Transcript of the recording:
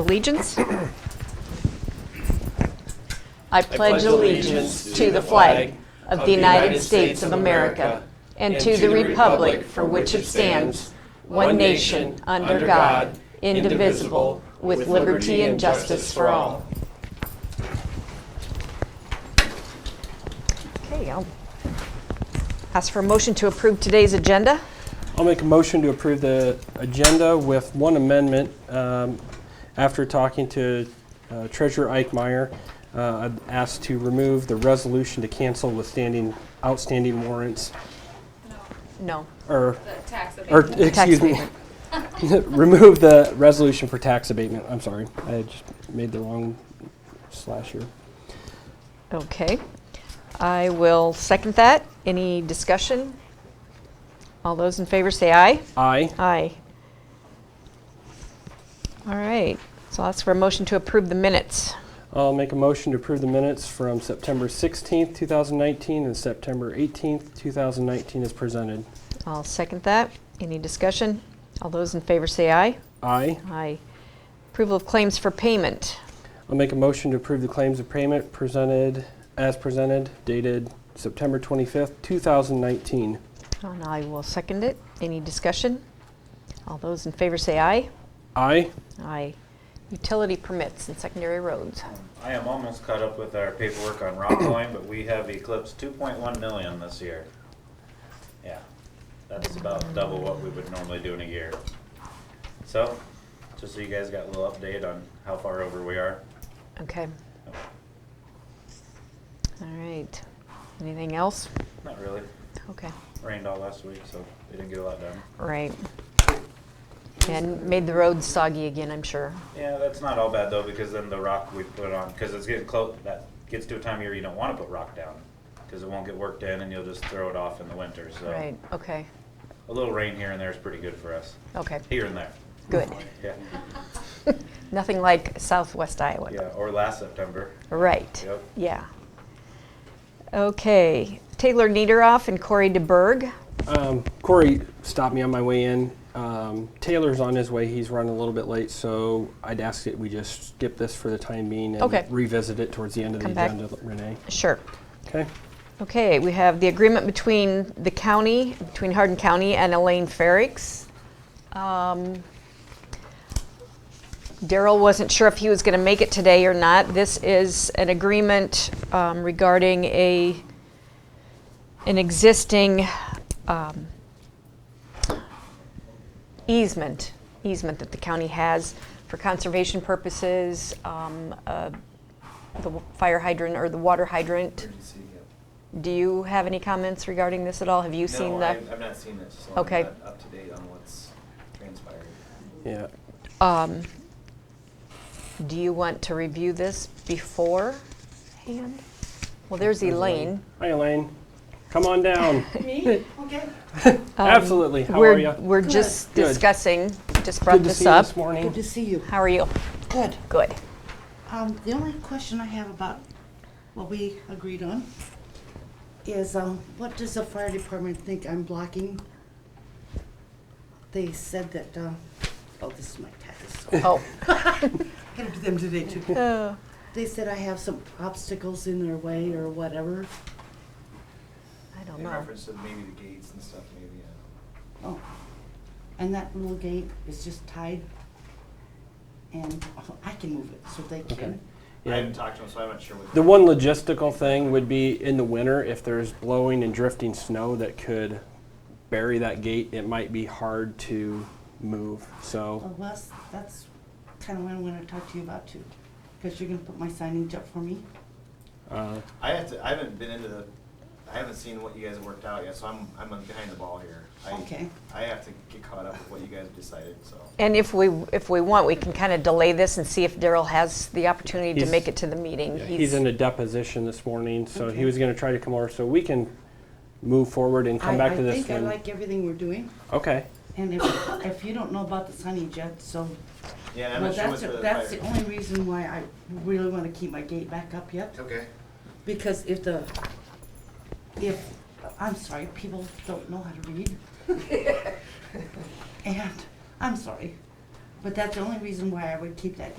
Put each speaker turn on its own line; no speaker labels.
allegiance? I pledge allegiance to the flag of the United States of America and to the republic for which it stands, one nation, under God, indivisible, with liberty and justice for all. Okay, I'll ask for a motion to approve today's agenda.
I'll make a motion to approve the agenda with one amendment. Um, After talking to uh, Treasurer Ike Meyer, uh, I've asked to remove the resolution to cancel withstanding outstanding warrants,
No,
or,
The tax
or,
abatement.
tax
excuse me,
abatement.
remove the resolution for tax abatement. I'm sorry, I just made the wrong slash here.
Okay. I will second that. Any discussion? All those in favor say aye.
Aye.
Aye. All right. So I'll ask for a motion to approve the minutes.
I'll make a motion to approve the minutes from September 16th, 2019, and September 18th, 2019 as presented.
I'll second that. Any discussion? All those in favor say aye.
Aye.
Aye. Approval of claims for payment.
I'll make a motion to approve the claims of payment presented, as presented, dated September 25th, 2019.
And I will second it. Any discussion? All those in favor say aye.
Aye.
Aye. Utility permits and secondary roads.
I am almost caught up with our paperwork on Rockline, but we have eclipsed two point one million this year. Yeah, that is about double what we would normally do in a year. So, just so you guys got a little update on how far over we are.
Okay. All right. Anything else?
Not really,
Okay.
rained all last week, so we didn't get a lot done.
Right. And made the roads soggy again, I'm sure.
Yeah, that's not all bad though, because then the rock we put on, because it's getting close, that gets to a time of year you don't wanna put rock down, because it won't get worked in and you'll just throw it off in the winter, so.
Right. Okay.
A little rain here and there is pretty good for us,
Okay.
here and there,
Good.
yeah,
Nothing like Southwest Iowa.
yeah, or last September.
Right.
Yep.
Yeah. Okay. Taylor Niederoff and Corey DeBerg.
Um, Corey stopped me on my way in. Um, Taylor's on his way. He's running a little bit late, so I'd ask that we just skip this for the time being and
Okay.
revisit it towards the end of the
Come back.
agenda, Renee.
Sure.
Okay.
Okay. We have the agreement between the county, between Hardin County and Elaine Ferrix. Um, Daryl wasn't sure if he was going to make it today or not. This is an agreement um, regarding a, an existing um, easement, easement that the county has for conservation purposes, um, uh, the w- fire hydrant or the water hydrant. Do you have any comments regarding this at all? Have you seen
No,
the?
I've, I've not seen it, so
Okay.
I'm not up to date on what's transpired.
Yeah.
Um, do you want to review this beforehand? Well, there's Elaine.
Hi, Elaine. Come on down.
Me? Okay.
Absolutely. How
Um, we're,
are you?
We're just
Good.
discussing, just brought
Good to
this
see you
up.
this
Good
morning.
to see you.
How are you?
Good.
Good.
Um, the only question I have about what we agreed on is, um, what does the fire department think I'm blocking? They said that, uh, oh, this is my tax. I
Oh.
gotta do them today too.
Oh.
They said I have some obstacles in their way or whatever.
I don't
In
know.
reference to maybe the gates and stuff, maybe, I
Oh, and that little gate is just tied. And oh, I can move it, so they can.
I
Yeah.
haven't talked to him, so I'm not sure what.
The one logistical thing would be in the winter, if there's blowing and drifting snow that could bury that gate, it might be hard to move.
Well,
So,
Wes, that's kind of what I want to talk to you about too, because you're going to put my signage up for me.
uh,
I have to, I haven't been into the, I haven't seen what you guys have worked out yet, so I'm, I'm behind the ball here. I-
Okay.
I have to get caught up with what you guys have decided, so.
And if we if we want, we can kind of delay this and see if Daryl has the opportunity to
He's-
make it to the meeting.
he's, in a deposition this morning, so he
Okay.
was going to try to come over. So we can move forward and come
I-
back to
I
this
think I
one.
like everything we're doing,
okay.
and if, if you don't know about the signage yet, so.
Yeah, and I'm
Well,
not sure
that's,
what's
the-
the.
that's
fire-
the only reason why I really want to keep my gate back up yet,
Okay.
because if the, if, I'm sorry, people don't know how to read. And, I'm sorry, but that's the only reason why I would keep that